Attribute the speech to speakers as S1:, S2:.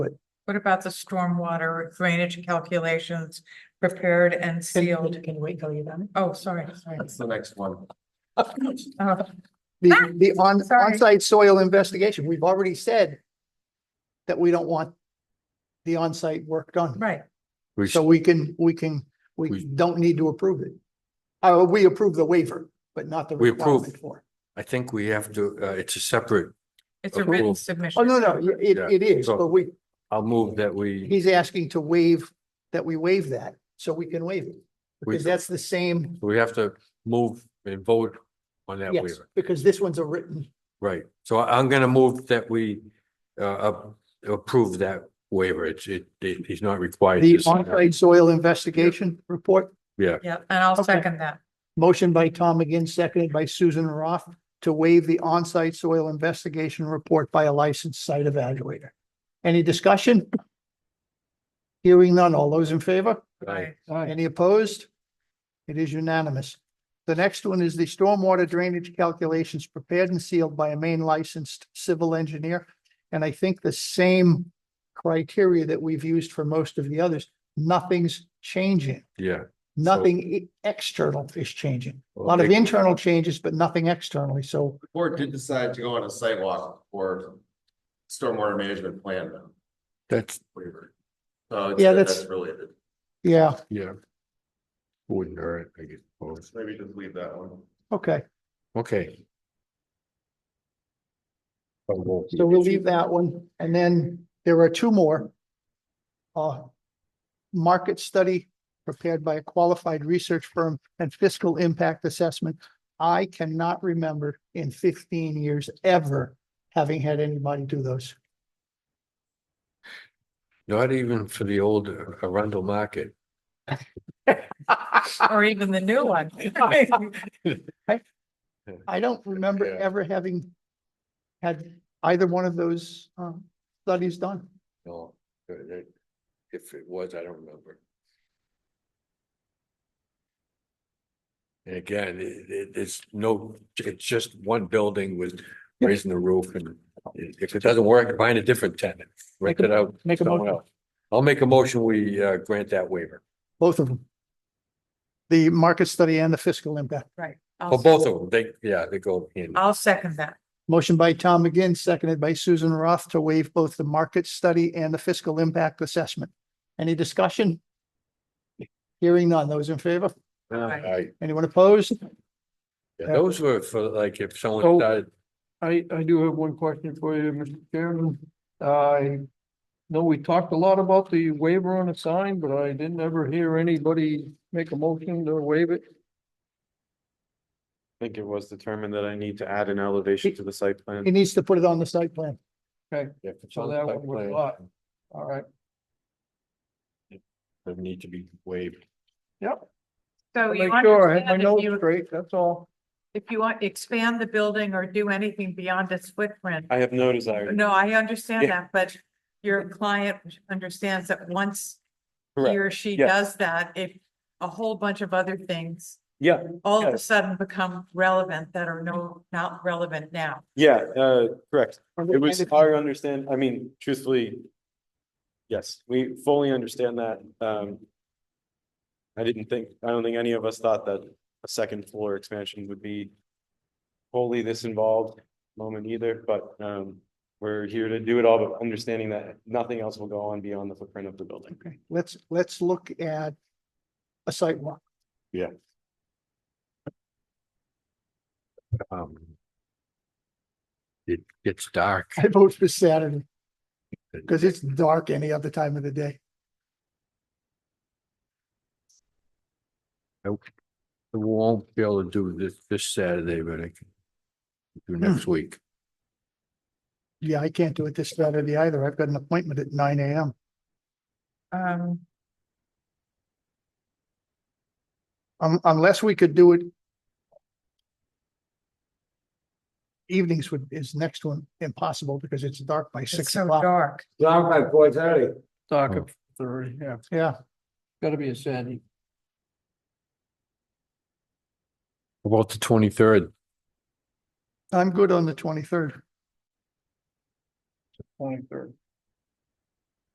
S1: What about the stormwater drainage calculations prepared and sealed?
S2: Can you wait till you're done?
S1: Oh, sorry, sorry.
S3: That's the next one.
S1: Uh,
S2: The, the on,
S1: Sorry.
S2: on-site soil investigation, we've already said that we don't want the on-site work done.
S1: Right,
S3: We
S2: So
S3: should,
S2: we can, we can, we
S3: We-
S2: don't need to approve it. Uh, we approve the waiver, but not the
S3: We approve.
S2: requirement for.
S3: I think we have to, uh, it's a separate,
S1: it's a written
S3: Approval.
S2: Oh,
S1: submission.
S2: no, no, it,
S3: Yeah,
S2: it is,
S3: so-
S2: but we,
S3: I'll move that we,
S2: he's asking to waive, that we waive that, so we can waive it.
S3: We-
S2: Because that's the same,
S3: we have to move and vote on that
S2: yes,
S3: waiver.
S2: because this one's a written,
S3: Right, so I- I'm gonna move that we, uh, up- approve that waiver. It's, it, it- he's not required.
S2: the
S3: to sign that.
S2: on-site soil investigation report.
S1: Yeah, and I'll
S2: Okay.
S1: second that.
S2: Motion by Tom McGinn, seconded by Susan Roth to waive the on-site soil investigation report by a licensed site evaluator. Any discussion? Hearing none. All those in favor?
S3: Right.
S1: I-
S2: Any opposed? It is unanimous. The next one is the stormwater drainage calculations prepared and sealed by a main licensed civil engineer. And I think the same criteria that we've used for most of the others, nothing's changing.
S3: Yeah.
S2: Nothing e- external is changing. A lot
S3: Well,
S2: of
S3: they-
S2: internal changes, but nothing externally. So
S4: Board did decide to go on a sidewalk for stormwater management plan though,
S3: That's,
S4: waiver. So it's-
S2: Yeah, that's-
S4: that's related.
S2: yeah,
S3: yeah. Wouldn't hurt, I guess.
S4: Maybe just leave that one.
S2: okay.
S3: Okay.
S2: So we'll leave that one. And then there are two more. Uh, market study prepared by a qualified research firm and fiscal impact assessment. I cannot remember in fifteen years ever having had anybody do those.
S3: Not even for the old uh, Arundel Market.
S1: Or even the new one.
S2: I don't remember
S3: Yeah.
S2: ever having had either one of those um studies done.
S3: No, uh, that- if it was, I don't remember. And again, it, it, it's no, it's just one building with raising the roof and if it doesn't work, find a different tenant. Rent
S2: Make
S3: it
S2: a-
S3: out.
S2: make a
S3: somewhere
S2: motion.
S3: else. I'll make a motion, we, uh, grant that waiver
S2: Both of them. The market study and the fiscal impact.
S1: I'll
S3: for both of them. They, yeah, they go in.
S1: I'll second that.
S2: Motion by Tom McGinn, seconded by Susan Roth to waive both the market study and the fiscal impact assessment. Any discussion? Hearing none. Those in favor?
S1: Right.
S3: Right.
S2: Anyone opposed?
S3: Yeah, Those were for like if someone
S5: So-
S3: died,
S5: I, I do have one question for you, Mr. Chairman. I know we talked a lot about the waiver on a sign, but I didn't ever hear anybody make a motion to waive it.
S6: I think it was determined that I need to add an elevation to the site plan.
S2: He needs to put it on the site plan.
S3: if it's
S5: So
S3: on
S5: that
S3: site
S5: one was a
S3: plan,
S5: lot. All right,
S3: They need to be waived.
S1: So you
S5: make sure I have my
S1: understand if
S5: notes
S1: you-
S5: straight, that's all.
S1: if you want, expand the building or do anything beyond its footprint.
S6: I have no desire.
S1: No, I understand
S6: Yeah.
S1: that, but your client understands that once he
S6: Correct.
S1: or she
S6: Yeah.
S1: does that, if a whole bunch of other things
S6: Yeah,
S1: all of
S6: Yeah.
S1: a sudden become relevant that are no, not relevant now.
S6: yeah, uh, correct. It
S2: And
S6: was
S2: if-
S6: our understand, I mean, truthfully. Yes, we fully understand that. Um. I didn't think, I don't think any of us thought that a second floor expansion would be. Wholly this involved moment either, but um, we're here to do it all, but understanding that nothing else will go on beyond the footprint of the building.
S2: Okay, let's, let's look at a site walk.
S3: Um. It gets dark.
S2: I vote for Saturday because it's dark any other time of the day.
S3: I won't be able to do this, this Saturday, but I can do next
S5: Hmm.
S3: week.
S2: Yeah, I can't do it this Saturday either. I've got an appointment at nine AM.
S1: Um,
S2: Um, unless we could do it. Evenings would, is next one impossible because it's dark by
S1: it's
S2: six
S1: so
S2: o'clock.
S1: dark.
S5: Talk
S3: Oh.
S5: of thirty, yeah,
S2: Yeah,
S5: gotta be a Saturday.
S3: About the twenty-third,
S2: I'm good on the twenty-third.
S5: Twenty-third.